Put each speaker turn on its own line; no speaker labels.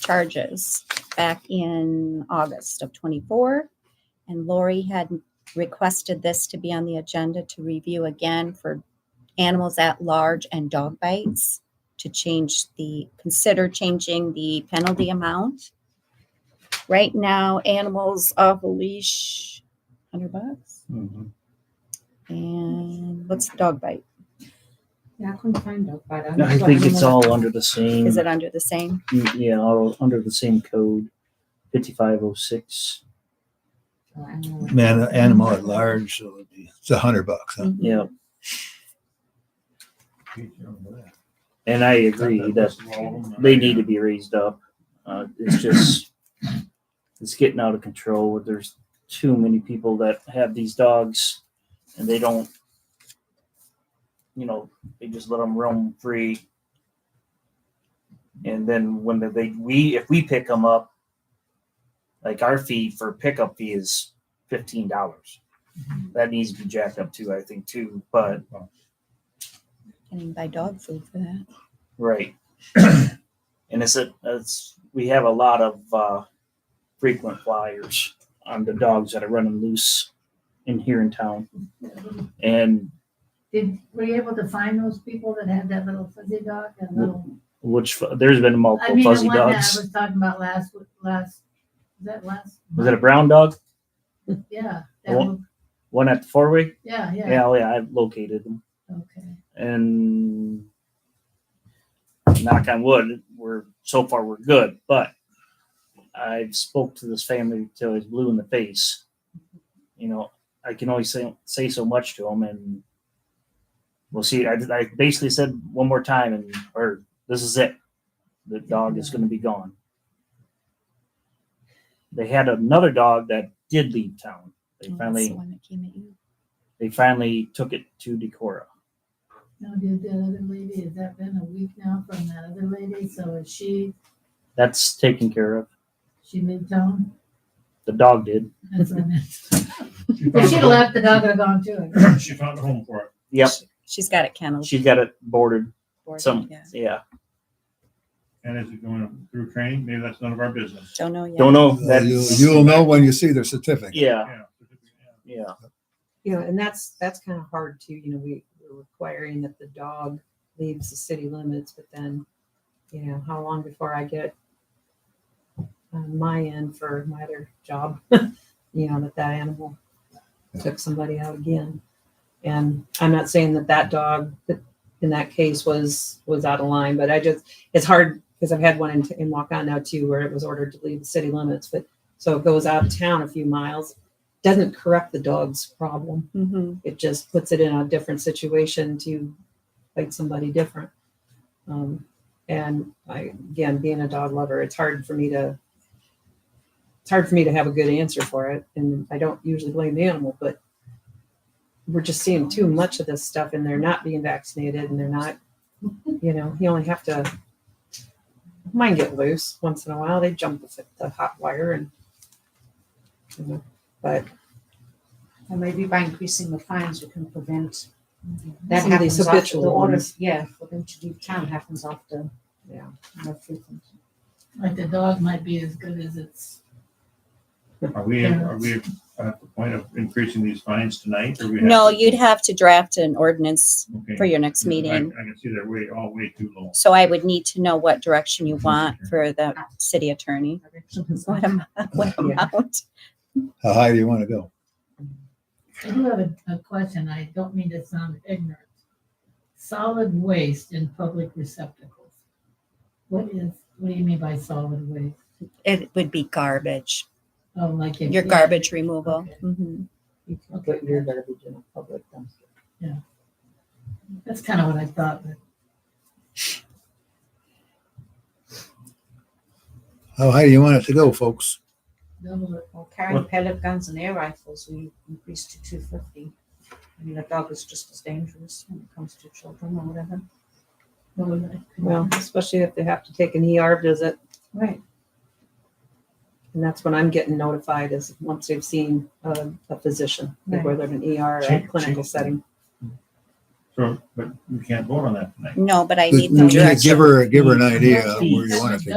charges back in August of twenty-four. And Lori had requested this to be on the agenda to review again for animals at large and dog bites to change the, consider changing the penalty amount. Right now, animals off a leash, hundred bucks.
Mhm.
And what's the dog bite?
Yeah, I couldn't find it, but I'm.
No, I
just
think it's
wondering
all uh, under the same,
Is it under the same?
yeah, all under the same code, fifty-five oh six.
if- I don't know.
Man, an animal at large, so it'd be- it's a hundred bucks. huh?
Yeah, Oh, and I agree that they need to be raised up. Uh, it's just, it's getting out of control. There's too many people that have these dogs and they don't, you know, they just let them roam free. And then when they- they, we, if we pick them up, like our fee for pickup fee is fifteen dollars. That needs to be jacked up too, I think too, but,
Can buy dog food for that?
right. And it's, a it's, we have a lot of, uh, frequent flyers on the dogs that are running loose in here in town. And
Did, were you able to find those people that had that little fuzzy dog, that little?
which, fu- there's been
I
multiple
mean, the
fuzzy
one that I
dogs.
was talking about last, w- last, was that last?
Was it a brown dog?
Yeah. that
Well-
one-
One at the four way?
Yeah, yeah,
Yeah, oh yeah, I've located them.
okay.
and knock on wood, we're so far we're good. But I've spoke to this family till he's blue in the face. You know, I can only say say so much to him, and we'll see. I, I basically said one more time, and or this is it. The dog is going to be gone. They had another dog that did leave town. They
Oh, that's
finally
the one that came at you.
they finally took it to Decorah.
Now, did that other lady, has that been a week now from that other lady? So is she,
That's taken care of.
she moved on?
The dog did.
That's what I meant. If she'd left, the dog would have gone too.
She found a home for it.
Yep.
She's got it kenneled.
She's got it boarded.
boarded,
Some
yeah.
yeah.
And is it going through training? Maybe that's none of our business.
Don't know yet.
Don't know.
Uh,
That's,
you- You'll know when you see their certificate.
yeah,
Yeah.
yeah.
You know, and that's, that's kind of hard too, you know, we, we're requiring that the dog leaves the city limits, but then, you know, how long before I get on my end for my other job, you know, that that animal took somebody out again. And I'm not saying that that dog that in that case was, was out of line, but I just, it's hard because I've had one in, in Waukon now too, where it was ordered to leave the city limits, but so it goes out of town a few miles, doesn't correct the dog's problem
Mhm.
it just puts it in a different situation to fight somebody different. Um, and I, again, being a dog lover, it's hard for me to, it's hard for me to have a good answer for it. And I don't usually blame the animal, but we're just seeing too much of this stuff and they're not being vaccinated and they're not, you know, you only have to, mine get loose once in a while. They jump the, the hot wire and, you know, but
And maybe by increasing the fines, we can prevent. That
Some of these
happens after
habitual
the order,
ones.
yeah, for them to leave town happens after.
Yeah.
you know, frequent.
Like the dog might be as good as its,
Are we, are we at the point of increasing these fines tonight? or we have
No,
to-
you'd have to draft an ordinance
Okay.
for your next
I-
meeting.
I can see they're way, all way too low.
So I would need to know what direction you want for the city attorney. What amount, what
Yeah.
amount?
How high do you want to go?
I do have a, a question, I don't mean to sound ignorant. Solid waste in public receptacles. What is, what do you mean by solid waste?
It would be garbage,
Oh, like. if-
your garbage removal.
Okay.
Mhm.
you can put your garbage in a public dumpster.
That's kind of what I thought, but
How high do you want it to go, folks?
double it.
Or carrying pellet guns and air rifles, we increased to two fifty. I mean, a dog is just as dangerous when it comes to children or whatever.
double it.
Well, especially if they have to take an ER visit,
Right.
and that's when I'm getting notified is once they've seen a, a physician, like
Right.
whether in an ER or a
Check-
clinical
check.
setting.
So, but we can't vote on that tonight.
No, but I
But
need
you
the
gotta
direction.
Give her, give her an idea of where
Fees.
you want it to